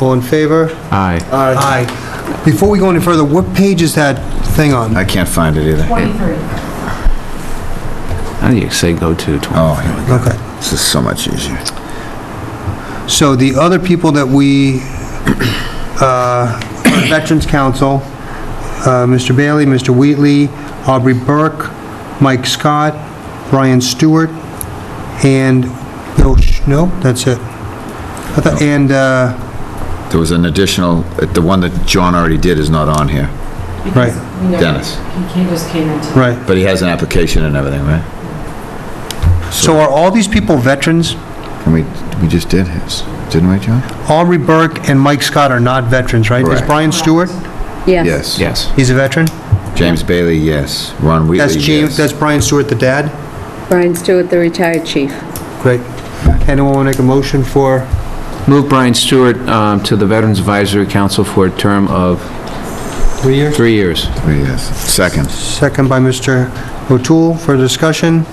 All in favor? Aye. Aye. Before we go any further, what page is that thing on? I can't find it either. 23. How do you say go to 20? Oh, here we go. Okay. This is so much easier. So the other people that we, uh, Veterans Council, uh, Mr. Bailey, Mr. Wheatley, Aubrey Burke, Mike Scott, Brian Stewart, and Bill, Sch- no, that's it. I thought- And, uh, There was an additional, the one that John already did is not on here, Right. because we know Dennis. He came- just came in today. right. but he has an application and everything, right? So are all these people veterans? And we, we just did his, didn't we, John? Aubrey Burke and Mike Scott are not veterans, right? Is Correct. Brian Stewart? Yes. Yes. Yes. He's a veteran? James Bailey, yes. Ron Wheatley, yes. That's James, that's Brian Stewart, the dad? Brian Stewart, the retired chief. Great. Anyone want to make a motion for, Move Brian Stewart um, to the Veterans Advisory Council for a term of three years? three years. Yes. Second. Second by Mr. O'Toole for discussion.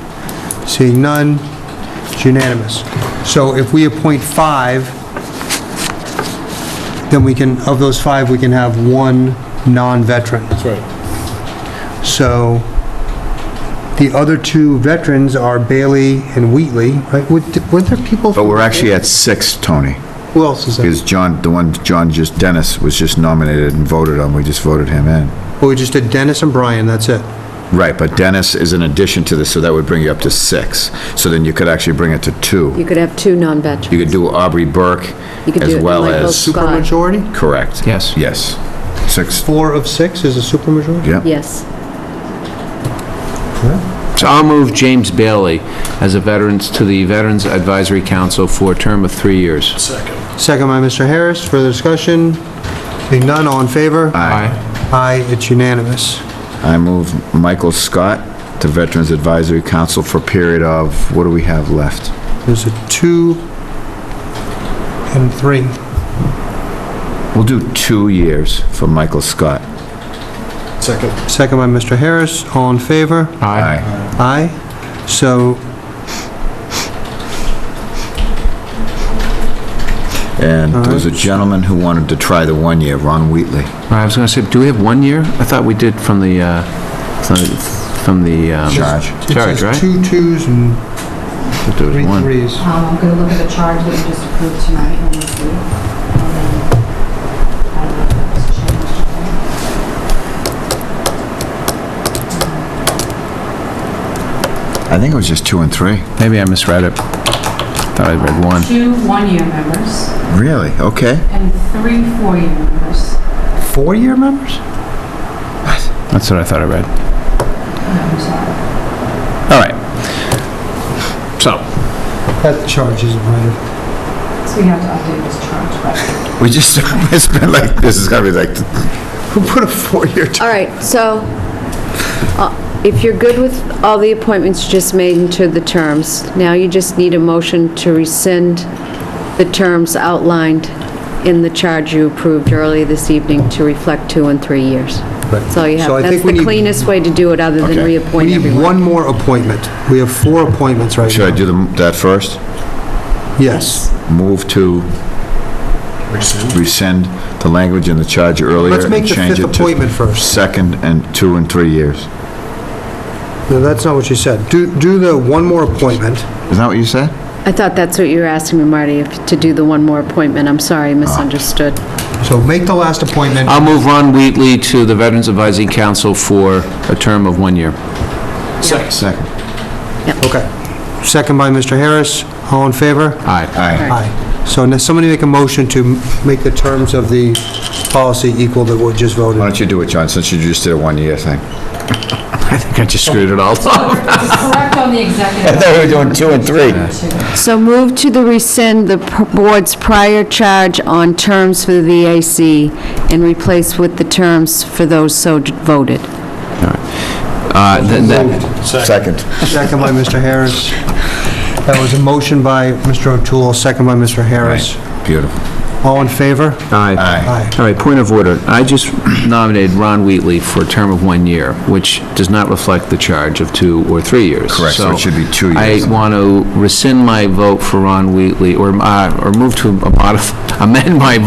Seeing none, it's unanimous. So if we appoint five, then we can, of those five, we can have one non-veteran. That's right. So the other two veterans are Bailey and Wheatley, right? Were were there people? But we're actually at six, Tony, Who else is there? because John, the one John just, Dennis was just nominated and voted on, we just voted him in. Well, we just did Dennis and Brian, that's it. Right, but Dennis is an addition to this, so that would bring you up to six. So then you could actually bring it to two. You could have two non-veterans. You could do Aubrey Burke You could as do it well Michael as... Scott. Supermajority? Correct. Yes. Yes. Six, Four of six is a supermajority? yeah. Yes. So I'll move James Bailey as a veterans to the Veterans Advisory Council for a term of three years. Second by Mr. Harris, further discussion? Seeing none, all in favor? Aye. Aye, it's unanimous. I move Michael Scott to Veterans Advisory Council for a period of, what do we have left? There's a two and three. We'll do two years for Michael Scott. Second by Mr. Harris, all in favor? Aye. Aye. Aye. So, And there was a gentleman who wanted to try the one year, Ron Wheatley. I was going to say, do we have one year? I thought we did from the, uh, from- from the... um, Charge. it Charge, says right? two twos and But there was three one. threes. Um, I'm going to look at the charge that you just approved tonight and we'll see. And then, I don't know if that was changed or not. I think it was just two and three. Maybe I misread it. Thought I read one. Two one-year members Really? Okay. and three four-year members. Four-year members? That's what I thought I read. I'm sorry. All right. So, That charge isn't right. So we have to update this charge, but We just, it's been like, this is gonna be like, who put a four-year term? All right, so uh, if you're good with all the appointments you just made into the terms, now you just need a motion to rescind the terms outlined in the charge you approved earlier this evening to reflect two and three years. That's all you So I have. think That's we the need- cleanest way to do it, other Okay. than reappoint We need everyone. one more appointment. We have four appointments right now. Should I do the- that first? Yes. Move to rescind the language in the charge earlier Let's make and the change fifth it to appointment first. second and two and three years. No, that's not what you said. Do, do the one more appointment. Isn't that what you said? I thought that's what you were asking me, Marty, if- to do the one more appointment. I'm sorry, I misunderstood. So make the last appointment. I'll move Ron Wheatley to the Veterans Advisory Council for a term of one year. Second. Uh, Okay. Second by Mr. Harris. All in favor? Aye. Aye. Aye. So now somebody make a motion to make the terms of the policy equal that we just Why voted. don't you do it, John, since you just did a one-year thing? I think I just screwed it all up. it's correct on the executive. we were doing two and three. So move to the rescind the p- board's prior charge on terms for the VAC and replace with the terms for those so d- voted. Uh, th- th- Second. Second by Mr. Harris. That was a motion by Mr. O'Toole, second by Mr. Harris. Beautiful. All in favor? Aye. Aye. Aye. All right, point of order. I just nominated Ron Wheatley for a term of one year, which does not reflect the charge of two or three years. Correct, so it should be two years. I want to rescind my vote for Ron Wheatley, or uh, or move to modify, amend my